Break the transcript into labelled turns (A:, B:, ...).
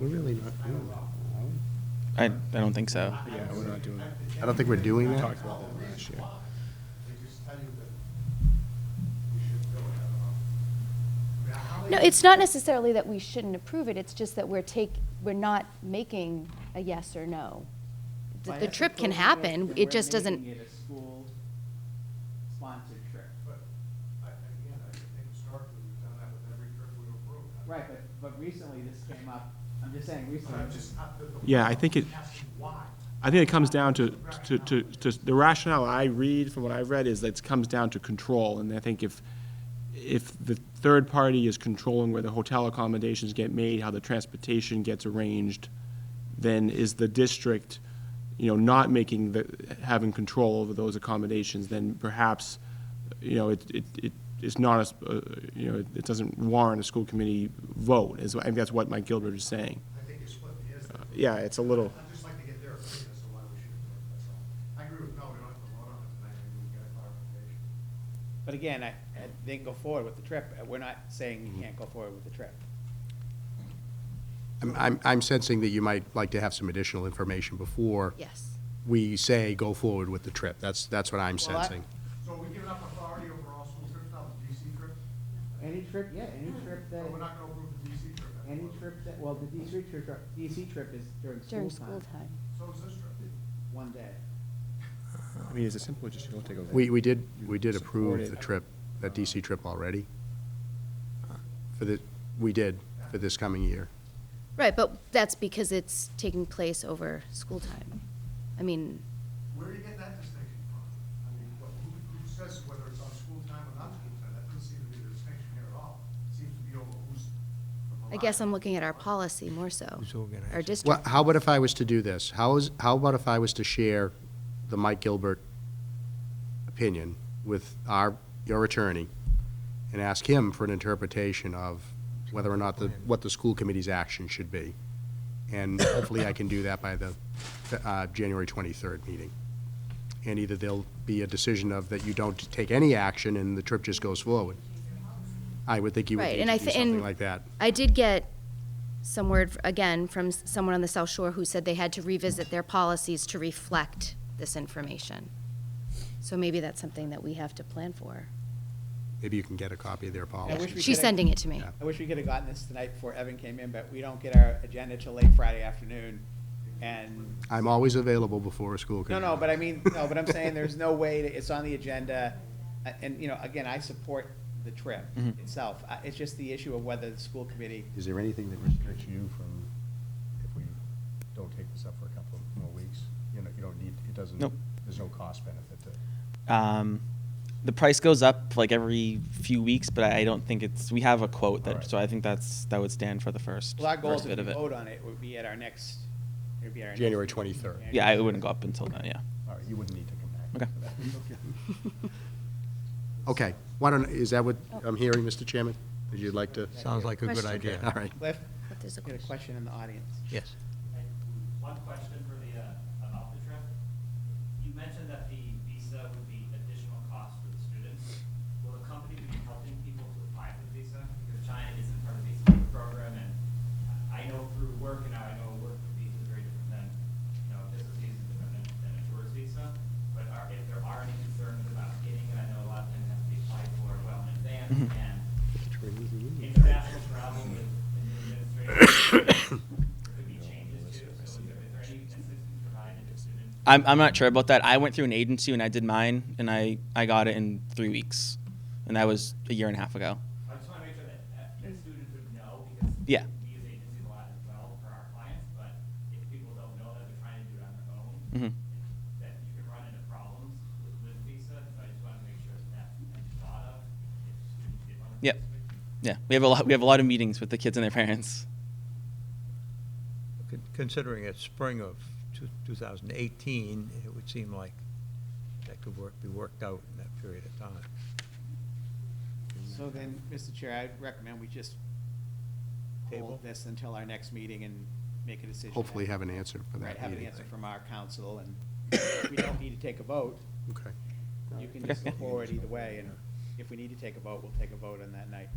A: We're really not doing that. are we?
B: I, I don't think so.
A: Yeah, we're not doing that. I don't think we're doing that. Talked about that last year.
C: No, it's not necessarily that we shouldn't approve it, it's just that we're take, we're not making a yes or no. The- The trip can happen, it just doesn't,
D: We're making it a school-sponsored trip.
E: But, I, again, I think historically, we've done that with every trip we've approved.
D: Right, but, but recently this came up, I'm just saying recently.
E: I'm just, I- the- the-
F: Yeah, I think it-
E: Ask you why.
F: I think it comes down to, to, to, to, the rationale I read from what I've read is that it comes down to control, and I think if, if the third party is controlling where the hotel accommodations get made, how the transportation gets arranged, then is the district, you know, not making the, having control over those accommodations, then perhaps, you know, it, it, it it's not a, s- uh, you know, it doesn't warrant a school committee vote, is, I think that's what Mike Gilbert is saying.
E: I think it's what it is.
A: Uh,
E: that-
F: Yeah, it's a little.
E: I'd just like to get their opinion as to why we should do it, that's all. I agree with, no, we don't have to vote on it tonight, maybe we can get a clarification.
D: But again, I, I- they can go forward with the trip, Uh, we're not saying you can't go forward with the trip.
A: I'm, I'm, I'm sensing that you might like to have some additional information before
C: yes.
A: we say go forward with the trip. That's, that's what I'm
D: Well, I-
A: sensing.
E: So are we giving up authority over all school trips now, the DC trip?
D: Any trip, yeah, any
C: Mm-hmm.
D: trip that,
E: But Oh, we're not gonna approve the DC trip. that's
D: any
E: what-
D: trip that, well, the DC trip, DC trip is during
C: During
D: school
C: school time.
D: time,
E: So is this trip.
D: one day.
F: I mean, is it simple, just go take a vote?
A: We, we did, we did approve
F: Support it.
A: the trip, that DC trip already. For the, we did, for this coming year.
C: Right, but that's because it's taking place over school time. I mean,
E: Where are you getting that distinction from? I mean, what, who, who says whether it's on school time or not school time? That doesn't seem to be the distinction here at all. It Seems to be over who's.
C: I guess I'm looking at our policy more so. Our
A: Well,
C: district,
A: how about if I was to do this? How is, how about if I was to share the Mike Gilbert opinion with our, your attorney, and ask him for an interpretation of whether or not the, what the school committee's action should be? And hopefully I can do that by the, uh, January twenty-third meeting. And either there'll be a decision of that you don't take any action and the trip just goes forward. I would think you would
C: Right,
A: need
C: and I
A: to do
C: thi- and-
A: something like that.
C: I did get some word, again, from s- someone on the South Shore who said they had to revisit their policies to reflect this information. So maybe that's something that we have to plan for.
A: Maybe you can get a copy of their
D: I wish
A: policy.
D: we
C: She's
D: could've-
C: sending it to me.
A: Yeah.
D: I wish we could have gotten this tonight before Evan came in, but we don't get our agenda till late Friday afternoon. And,
A: I'm always available before a school
D: no,
A: committee.
D: no, but I mean, no, but I'm saying there's no way, to- it's on the agenda. Uh, And, you know, again, I support the trip itself. Uh, It's just the issue of whether the school committee,
G: Is there anything that restricts you from, if we don't take this up for a couple of more weeks? You know, you don't need, it doesn't,
B: Nope.
G: there's no cost benefit to.
B: Um, the price goes up like every few weeks, but I don't think it's, we have a quote that,
G: Alright.
B: so I think that's, that would stand for the first,
D: well, our goal is
B: first
D: if
B: bit
D: we
B: of it.
D: vote on it, would be at our next, it'd be our. next
A: January
D: meeting.
A: 23rd.
B: Yeah, it wouldn't go up until then, yeah.
G: All right, you wouldn't need to come back.
B: Okay.
G: for that.
A: Okay, why don't, is that what I'm hearing, Mr. Chairman? Would you like to?
H: Oh. Sounds like a good
C: Question.
H: idea.
A: All right.
D: Cliff,
C: But there's a
D: you had a
C: question.
D: question in the audience.
H: Yes.
I: One question for the, uh, about the trip. You mentioned that the visa would be additional cost for the students. Will the company be helping people to apply for the visa? Because China isn't part of the visa program, and I know through work, and now I know work visa is very different than, you know, business visa is different than- than a tourist visa. But are, if there are any concerns about getting it, I know a lot of things have to be applied for well in advance, and international travel with the new administration could be changes too. So is there is there any assistance provided to students?
B: I'm, I'm not sure about that. I went through an agency and I did mine and I, I got it in three weeks. And that was a year and a half ago.
I: I just want to make sure that, that that students would know because
B: Mm. Yeah.
I: we as agencies a lot as well for our clients, but if people don't know that they're trying to do it on their own,
B: Mhm.
I: that you can run into problems with, with visa. So I just want to make sure that that's that's thought of if students did want to.
B: Yep.
I: participate.
B: Yeah, we have a lot, we have a lot of meetings with the kids and their parents.
H: Con- Considering it's spring of two- 2018, it would seem like that could work, be worked out in that period of time.
D: So then, Mr. Chair, I'd recommend we just
H: Table?
D: hold this until our next meeting and make a decision.
A: Hopefully
D: at-
A: have an answer for that
D: Right, have an
A: meeting.
D: answer from our council, and if we don't need to take a vote,
A: Okay.
D: you can
B: Okay,
D: just go
B: yeah.
D: forward either way, and if we need to take a vote, we'll take a vote on that night.